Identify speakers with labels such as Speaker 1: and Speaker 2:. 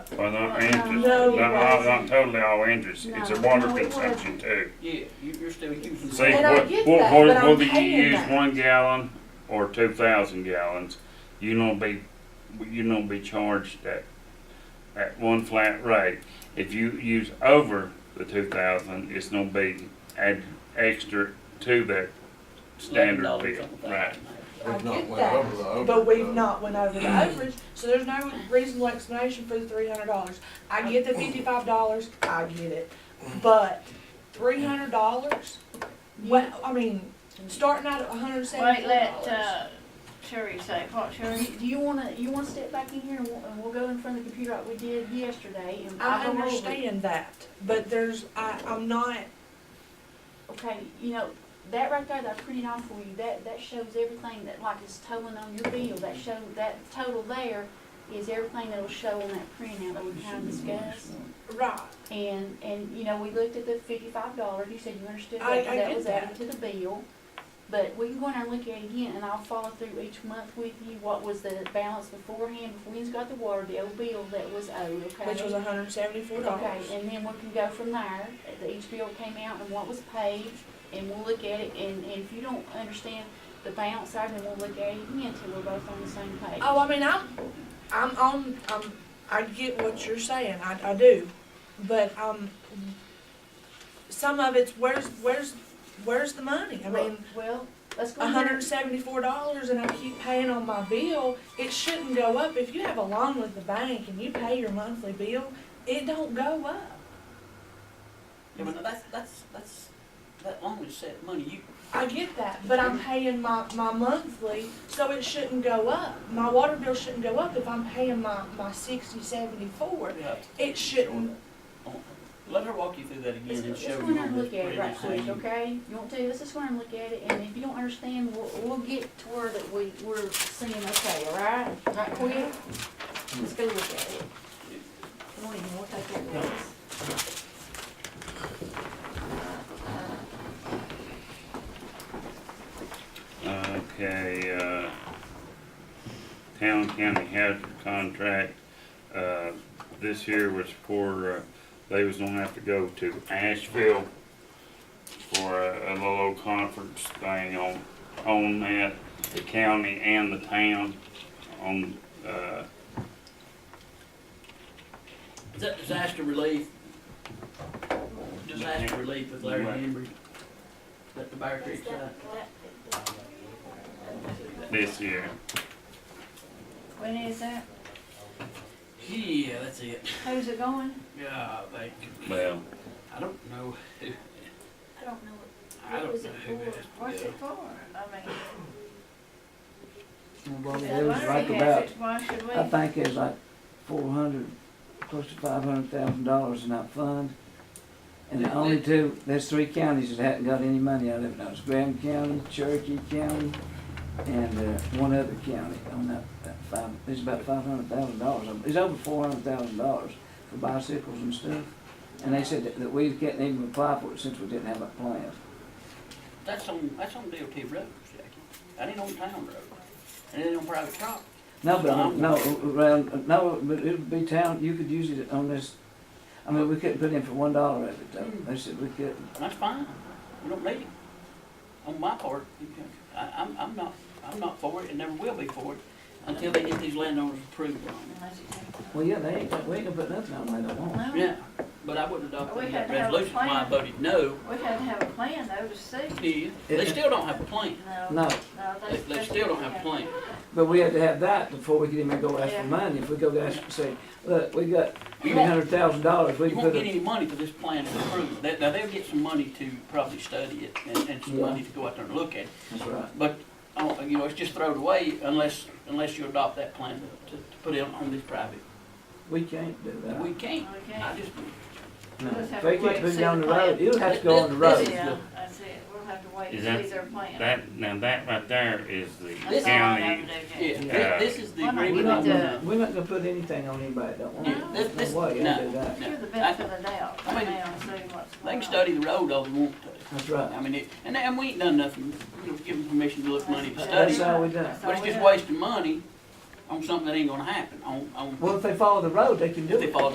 Speaker 1: Well, not interest,
Speaker 2: No,
Speaker 1: not,
Speaker 2: it
Speaker 1: not, not
Speaker 2: wasn't.
Speaker 1: totally all interest, it's
Speaker 2: No,
Speaker 1: a water
Speaker 2: no, it
Speaker 1: consumption too.
Speaker 3: Yeah, you- you're still using.
Speaker 1: See,
Speaker 2: And I
Speaker 1: what,
Speaker 2: get
Speaker 1: what,
Speaker 2: that,
Speaker 1: what,
Speaker 2: but I'm
Speaker 1: whether you
Speaker 2: paying
Speaker 1: use
Speaker 2: that.
Speaker 1: one gallon or two thousand gallons, you don't be, you don't be charged at, at one flat rate. If you use over the two thousand, it's gonna be add extra to that standard
Speaker 3: $11
Speaker 1: bill,
Speaker 3: something.
Speaker 1: right?
Speaker 2: I
Speaker 4: We've not
Speaker 2: get
Speaker 4: went over the
Speaker 2: that,
Speaker 4: overage,
Speaker 2: but we've
Speaker 4: though.
Speaker 2: not went over the overage, so there's no reasonable explanation for the three hundred dollars. I get the fifty-five dollars, I get it, but three hundred dollars? Well, I mean, starting out at a hundred and
Speaker 5: Wait,
Speaker 2: seventy
Speaker 5: let,
Speaker 2: dollars.
Speaker 5: uh, Sherry say, what, Sherry, do you wanna, you wanna step back in here and we'll, and we'll go in front of the computer like we did yesterday and
Speaker 2: I
Speaker 5: I'll go over it.
Speaker 2: understand that, but there's, I, I'm not,
Speaker 5: Okay, you know, that right there, that pretty nice for you, that, that shows everything that like is totaling on your bill, that show, that total there is everything that'll show on that printout that we kind of discussed.
Speaker 2: right,
Speaker 5: And, and, you know, we looked at the fifty-five dollars, you said you understood that,
Speaker 2: I- I
Speaker 5: but that
Speaker 2: get
Speaker 5: was added to the bill. But we can go in there and look at it again, and I'll follow through each month with you, what was the balance beforehand, before you got the water bill, bill that was owed, okay?
Speaker 2: which was hundred and seventy-four
Speaker 5: Okay,
Speaker 2: dollars.
Speaker 5: and then we can go from there, The- each bill came out and what was paid, and we'll look at it, and, and if you don't understand the balance side, then we'll look at it again till we're both on the same page.
Speaker 2: Oh, I mean, I'm, I'm, I'm, I'm, I get what you're saying, I, I do, but, um, some of it's, where's, where's, where's the money? I mean,
Speaker 5: Well, let's go. in there.
Speaker 2: hundred and seventy-four dollars and I keep paying on my bill, it shouldn't go up. If you have a loan with the bank and you pay your monthly bill, it don't go up.
Speaker 3: Yeah, but no, that's, that's, that's, that loan is set money, you,
Speaker 2: I get that, but I'm paying my, my monthly, so it shouldn't go up. My water bill shouldn't go up if I'm paying my, my sixty, seventy-four.
Speaker 3: yeah.
Speaker 2: It shouldn't,
Speaker 3: Oh, Let her walk you through that again
Speaker 5: Let's,
Speaker 3: and
Speaker 5: let's
Speaker 3: show
Speaker 5: go
Speaker 3: you
Speaker 5: in there
Speaker 3: on
Speaker 5: and
Speaker 3: this
Speaker 5: look at it right
Speaker 3: previous
Speaker 5: quick,
Speaker 3: thing.
Speaker 5: okay? You want to, let's just go in and look at it, and if you don't understand, we'll, we'll get to where that we, we're seeing, okay, all right? Right quick? Let's go look at it. Come on in, we'll take care of this.
Speaker 1: Okay, uh, town county hazard contract, uh, this here was for, uh, they was gonna have to go to Asheville for a, a little old conference thing on, on that, the county and the town on, uh,
Speaker 3: Is that disaster relief? Disaster relief with Larry
Speaker 1: Right.
Speaker 3: Henry? That the Bear Creek side?
Speaker 1: this year.
Speaker 5: When is that?
Speaker 3: Yeah, that's it.
Speaker 5: Who's it going?
Speaker 3: Yeah, I think,
Speaker 1: Well.
Speaker 3: I don't know who,
Speaker 5: I don't know.
Speaker 3: I
Speaker 5: What
Speaker 3: don't
Speaker 5: was
Speaker 3: know
Speaker 5: it
Speaker 3: who it is.
Speaker 5: for? What's it for? I mean.
Speaker 6: Well,
Speaker 5: that
Speaker 6: it was
Speaker 5: money
Speaker 6: right
Speaker 5: has
Speaker 6: about,
Speaker 5: it, Why should we?
Speaker 6: I think it was like four hundred, close to five hundred thousand dollars in that fund. And the only two, there's three counties that hadn't got any money out of it, that was Graham County, Cherokee County, and, uh, one other county on that, that five, it's about five hundred thousand dollars, it's over four hundred thousand dollars for bicycles and stuff. And they said that, that we can't even apply for it since we didn't have a plan.
Speaker 3: That's on, that's on DOT roads, Jackie. That ain't on town road. And it ain't on private property.
Speaker 6: No, but, I- no, around, no, but it would be town, you could use it on this, I mean, we couldn't put in for one dollar of it, though,
Speaker 5: Hmm.
Speaker 6: they said we couldn't.
Speaker 3: And that's fine. We don't need it. On my part, you can- I, I'm, I'm not, I'm not for it and never will be for it until they get these landowners approved on it.
Speaker 5: Unless it's-
Speaker 6: Well, yeah, they ain't, got- we ain't gonna put nothing on there, they don't
Speaker 5: No.
Speaker 6: want.
Speaker 3: Yeah, but I wouldn't adopt
Speaker 5: We had to
Speaker 3: that
Speaker 5: have a
Speaker 3: resolution. Why I
Speaker 5: plan.
Speaker 3: voted no.
Speaker 5: We had to have a plan though to see.
Speaker 3: Yeah, they still don't have a plan.
Speaker 5: No.
Speaker 6: No,
Speaker 5: no,
Speaker 3: They,
Speaker 5: that's-
Speaker 3: they
Speaker 5: that's-
Speaker 3: still don't have a
Speaker 5: yeah.
Speaker 3: plan.
Speaker 6: but we had to have that before we could even go ask
Speaker 5: Yeah.
Speaker 6: for money, if we go ask, say, look, we got
Speaker 3: You
Speaker 6: three
Speaker 3: won't-
Speaker 6: hundred thousand dollars, we
Speaker 3: You
Speaker 6: can
Speaker 3: won't
Speaker 6: put
Speaker 3: get
Speaker 6: it.
Speaker 3: any money for this plan to approve. They- Now, they'll get some money to probably study it and, and some
Speaker 6: Yeah.
Speaker 3: money to go out there and look at it.
Speaker 6: That's right.
Speaker 3: But, uh, you know, it's just thrown away unless, unless you adopt that plan to, to put in on this private.
Speaker 6: We can't do that.
Speaker 3: We can't.
Speaker 5: We
Speaker 3: I
Speaker 5: can't.
Speaker 3: just,
Speaker 6: No.
Speaker 5: We'll just
Speaker 6: If
Speaker 5: have
Speaker 6: they
Speaker 5: to wait
Speaker 6: can't
Speaker 5: and
Speaker 6: put
Speaker 5: see
Speaker 6: it on
Speaker 5: the
Speaker 6: the road,
Speaker 5: plan.
Speaker 6: it'll have to
Speaker 3: This-
Speaker 6: go on the
Speaker 3: this-
Speaker 6: road.
Speaker 3: this
Speaker 5: Yeah, that's it. We'll have to
Speaker 1: Is
Speaker 5: wait and
Speaker 1: that-
Speaker 5: see their plan.
Speaker 1: That, now that right there is the
Speaker 5: That's all I
Speaker 1: county,
Speaker 5: have to do,
Speaker 3: yeah,
Speaker 5: Jay.
Speaker 1: Yeah.
Speaker 3: thi- this is the
Speaker 5: Why not?
Speaker 6: We're
Speaker 3: agreement.
Speaker 6: not
Speaker 5: We need to-
Speaker 6: gonna, we're not gonna put anything on anybody that don't want
Speaker 3: Yeah, this-
Speaker 6: it,
Speaker 3: this-
Speaker 6: There's no way you
Speaker 3: no.
Speaker 6: can do that,
Speaker 5: Give the
Speaker 3: I-
Speaker 5: benefit of the doubt
Speaker 3: I
Speaker 5: right
Speaker 3: mean,
Speaker 5: now and see what's
Speaker 3: They
Speaker 5: going on.
Speaker 3: can study the road all they want to.
Speaker 6: that's right.
Speaker 3: I mean, it, and, and we ain't done nothing, you know, give them permission to look money to
Speaker 5: That's-
Speaker 3: study.
Speaker 6: That's all we done.
Speaker 5: that's all
Speaker 3: But it's
Speaker 5: we
Speaker 3: just
Speaker 5: done.
Speaker 3: wasting money
Speaker 6: on something that ain't gonna happen, on, on,
Speaker 3: Well, if they follow the road, they can do
Speaker 6: if
Speaker 3: it.
Speaker 6: they follow